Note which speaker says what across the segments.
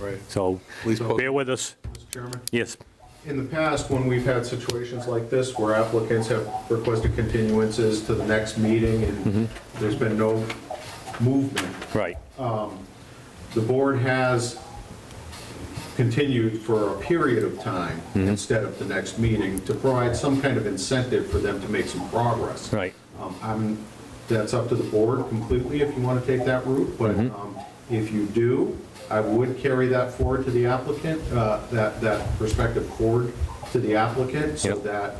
Speaker 1: Right.
Speaker 2: So
Speaker 1: Please post-
Speaker 2: bear with us.
Speaker 1: Mr. Chairman?
Speaker 2: Yes,
Speaker 1: In the past, when we've had situations like this where applicants have requested continuances to the next meeting and there's been no movement,
Speaker 2: right.
Speaker 1: the board has continued for a period of time instead of the next meeting to provide some kind of incentive for them to make some progress.
Speaker 2: Right.
Speaker 1: Um, I'm, that's up to the board completely if you want to take that route, but
Speaker 3: Mm-hmm.
Speaker 1: um, if you do, I would carry that forward to the applicant, uh, that, that prospective forward to the applicant, so
Speaker 2: Yep.
Speaker 1: that,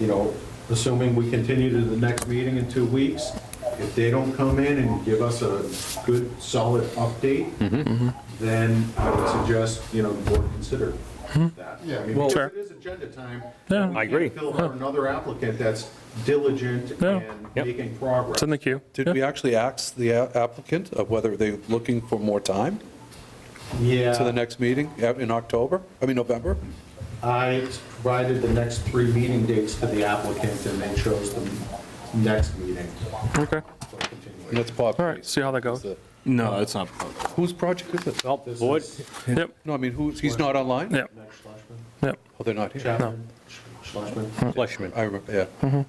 Speaker 1: you know, assuming we continue to the next meeting in two weeks, if they don't come in and give us a good, solid update,
Speaker 3: Mm-hmm,
Speaker 1: then I would suggest, you know, the board consider that. Yeah. I mean, because
Speaker 2: Sure.
Speaker 1: it is agenda time.
Speaker 3: Hmm. Yeah.
Speaker 1: We
Speaker 2: I agree.
Speaker 1: can't Fill out another applicant that's diligent
Speaker 3: Yeah.
Speaker 1: and
Speaker 2: Yep.
Speaker 1: making progress.
Speaker 3: It's in the queue.
Speaker 4: Did we actually ask the a- applicant of whether they're looking for more time to the
Speaker 1: Yeah,
Speaker 4: next meeting uh, in October, I mean, November?
Speaker 1: I provided the next three meeting dates to the applicant and they chose the next meeting.
Speaker 3: Okay,
Speaker 1: for continuation.
Speaker 4: And that's Bob.
Speaker 3: all right, see how that goes.
Speaker 5: No, it's not.
Speaker 4: Whose project is it?
Speaker 2: Well, Board,
Speaker 3: Yep,
Speaker 4: No, I mean, who's, he's not online?
Speaker 3: yep,
Speaker 1: Next Schlesman,
Speaker 3: yep.
Speaker 4: Oh, they're not here.
Speaker 1: Chapman, Sch- Schlesman.
Speaker 2: Fleshman.
Speaker 4: I remember, yeah.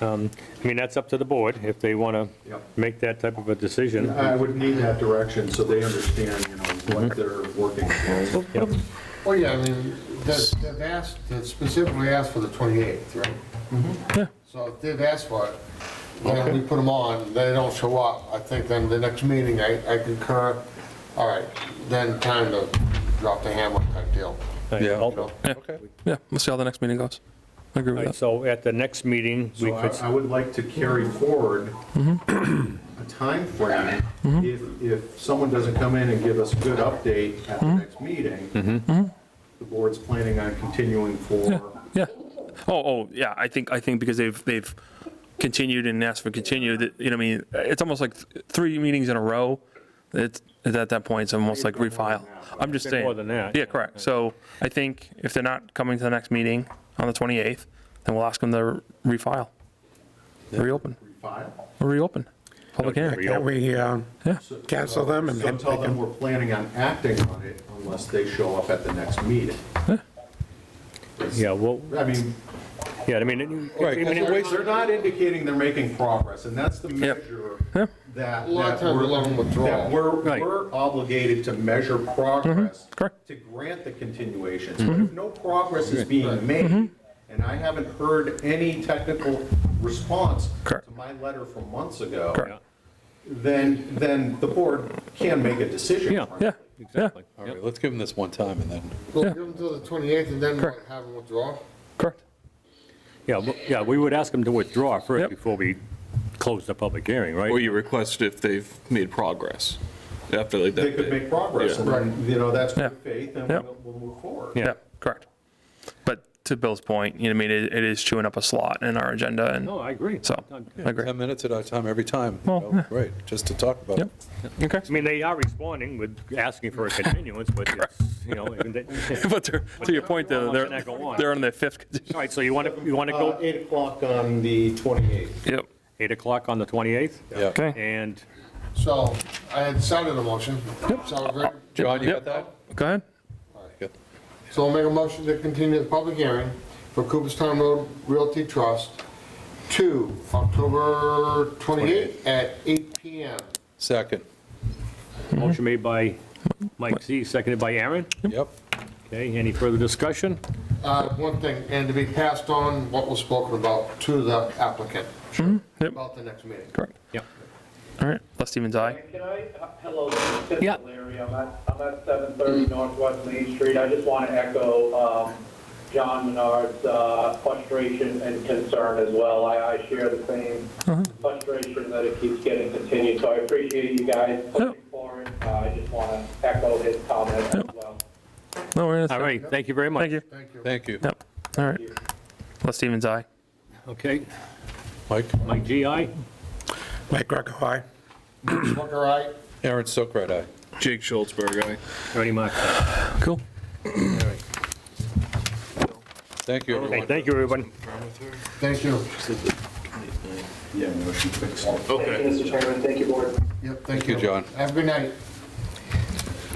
Speaker 2: I mean, that's up to the board if they want to
Speaker 1: Yep.
Speaker 2: make that type of a decision.
Speaker 1: I would need that direction so they understand, you know, what they're working for.
Speaker 6: Well, yeah, I mean, they've they've asked, they've specifically asked for the 28th, right?
Speaker 3: Yeah.
Speaker 6: So if they've asked for it, then we put them on, they don't show up, I think then the next meeting, I I concur, all right, then time to drop the hammer type deal.
Speaker 4: Yeah.
Speaker 2: All
Speaker 6: you know?
Speaker 3: Yeah,
Speaker 4: Okay.
Speaker 3: yeah, we'll see how the next meeting goes. I agree
Speaker 2: right,
Speaker 3: with that.
Speaker 2: So at the next meeting, we
Speaker 1: So uh, I
Speaker 2: could,
Speaker 1: I would like to carry forward a time frame. If, if someone doesn't come in and give us a good update at the next meeting, the board's planning on continuing for,
Speaker 3: Yeah. Oh, oh, yeah, I think, I think because they've, they've continued and asked for continued, you know, what I mean, it's almost like th- three meetings in a row. It's, it's at that point, it's almost like refile. I'm just
Speaker 2: Bit
Speaker 3: saying.
Speaker 2: more than that.
Speaker 3: Yeah, correct. So I think if they're not coming to the next meeting on the 28th, then we'll ask them to refile. Reopen,
Speaker 1: refile.
Speaker 3: reopen, public hearing.
Speaker 6: Can we uh, cancel them and
Speaker 1: So
Speaker 6: have
Speaker 1: tell them we're planning on acting on it unless they show up at the next meeting.
Speaker 2: yeah, well,
Speaker 1: I mean,
Speaker 2: yeah, I mean, it-
Speaker 4: Right,
Speaker 2: I mean,
Speaker 4: that's a
Speaker 2: it-
Speaker 4: waste-
Speaker 1: they're not indicating they're making progress, and that's the measure that. that
Speaker 6: A lot of times
Speaker 1: we're-
Speaker 6: along withdrawal.
Speaker 1: that we're,
Speaker 2: Right.
Speaker 1: we're obligated to measure progress.
Speaker 3: correct.
Speaker 1: To grant the continuations. But if no progress is being made, and I haven't heard any technical response
Speaker 3: Correct.
Speaker 1: to my letter from months ago.
Speaker 3: Correct.
Speaker 1: Then, then the board can make a decision.
Speaker 2: Yeah.
Speaker 3: Yeah,
Speaker 1: frankly.
Speaker 2: exactly.
Speaker 4: All
Speaker 2: Yep.
Speaker 4: right, let's give him this one time and then,
Speaker 6: We'll give them till the 28th and then what, have them withdraw?
Speaker 3: correct.
Speaker 2: Yeah, well, yeah, we would ask them to withdraw first
Speaker 3: Yep. Oh,
Speaker 2: before we close the public hearing,
Speaker 5: Or
Speaker 2: right?
Speaker 5: you request if they've made progress after like
Speaker 1: They
Speaker 5: that.
Speaker 1: could make progress, and then, you know, that's good
Speaker 3: Yeah.
Speaker 1: faith, and
Speaker 3: Yeah.
Speaker 1: we'll, we'll move forward.
Speaker 2: Yeah.
Speaker 3: Yeah, correct. But to Bill's point, you know, I mean, it it is chewing up a slot in our agenda and
Speaker 2: No, I agree.
Speaker 3: so, I agree.
Speaker 4: 10 minutes at a time, every time, you
Speaker 3: Well,
Speaker 4: know,
Speaker 3: yeah.
Speaker 4: right, just to talk about it.
Speaker 3: Yep. Okay.
Speaker 2: I mean, they are responding with asking for a continuance, but it's, you know, even they-
Speaker 3: But to to your point, though, they're,
Speaker 2: Not gonna go on.
Speaker 3: they're on their fifth.
Speaker 2: all right, so you want to, you want to
Speaker 1: Uh,
Speaker 2: go
Speaker 1: Eight o'clock on the 28th.
Speaker 3: Yep.
Speaker 2: 8 o'clock on the 28th?
Speaker 4: Yeah.
Speaker 3: Okay,
Speaker 2: And
Speaker 6: So I had sounded a motion. Sound great?
Speaker 4: John, you got
Speaker 3: Yep.
Speaker 4: that?
Speaker 3: go ahead.
Speaker 4: Yeah.
Speaker 6: So I'll make a motion to continue the public hearing for Cooperstown Road Realty Trust to October 28th at 8 PM.
Speaker 4: Second,
Speaker 3: Mm-hmm.
Speaker 2: motion made by Mike Z, seconded by Aaron.
Speaker 4: yep.
Speaker 2: Okay, any further discussion?
Speaker 6: Uh, One thing, and to be passed on what was spoken about to the applicant
Speaker 3: Yep.
Speaker 6: about the next meeting.
Speaker 3: Correct.
Speaker 2: Yep.
Speaker 3: All right, Les Stevens, aye.
Speaker 7: Can I, hello, this
Speaker 2: Yeah.
Speaker 7: is Larry, I'm at, I'm at 730 Northwest Main Street. I just want to echo um, John Menard's uh, frustration and concern as well. I, I share the same frustration that it keeps getting continued, so I appreciate you guys pushing forward. Uh, I just want to echo his comment as well.
Speaker 3: No, we're,
Speaker 2: All right, thank you very much.
Speaker 3: thank you.
Speaker 6: Thank you.
Speaker 4: Thank you.
Speaker 3: Yep, all right. Les Stevens, aye.
Speaker 2: Okay,
Speaker 4: Mike,
Speaker 2: Mike G, aye?
Speaker 8: Mike Greco, aye.
Speaker 6: Booker, aye?
Speaker 4: Aaron Sokrat, aye.
Speaker 5: Jake Schultzberg, aye.
Speaker 2: Ernie Mac.
Speaker 3: Cool.
Speaker 4: Thank you,
Speaker 2: Okay,
Speaker 4: everyone.
Speaker 2: thank you, everyone.
Speaker 6: Thank you.
Speaker 1: Yeah, no, she fixed it.
Speaker 7: Thank you, Mr. Chairman, thank you, board.
Speaker 6: Yep, thank
Speaker 4: you, John.
Speaker 6: Have a good night.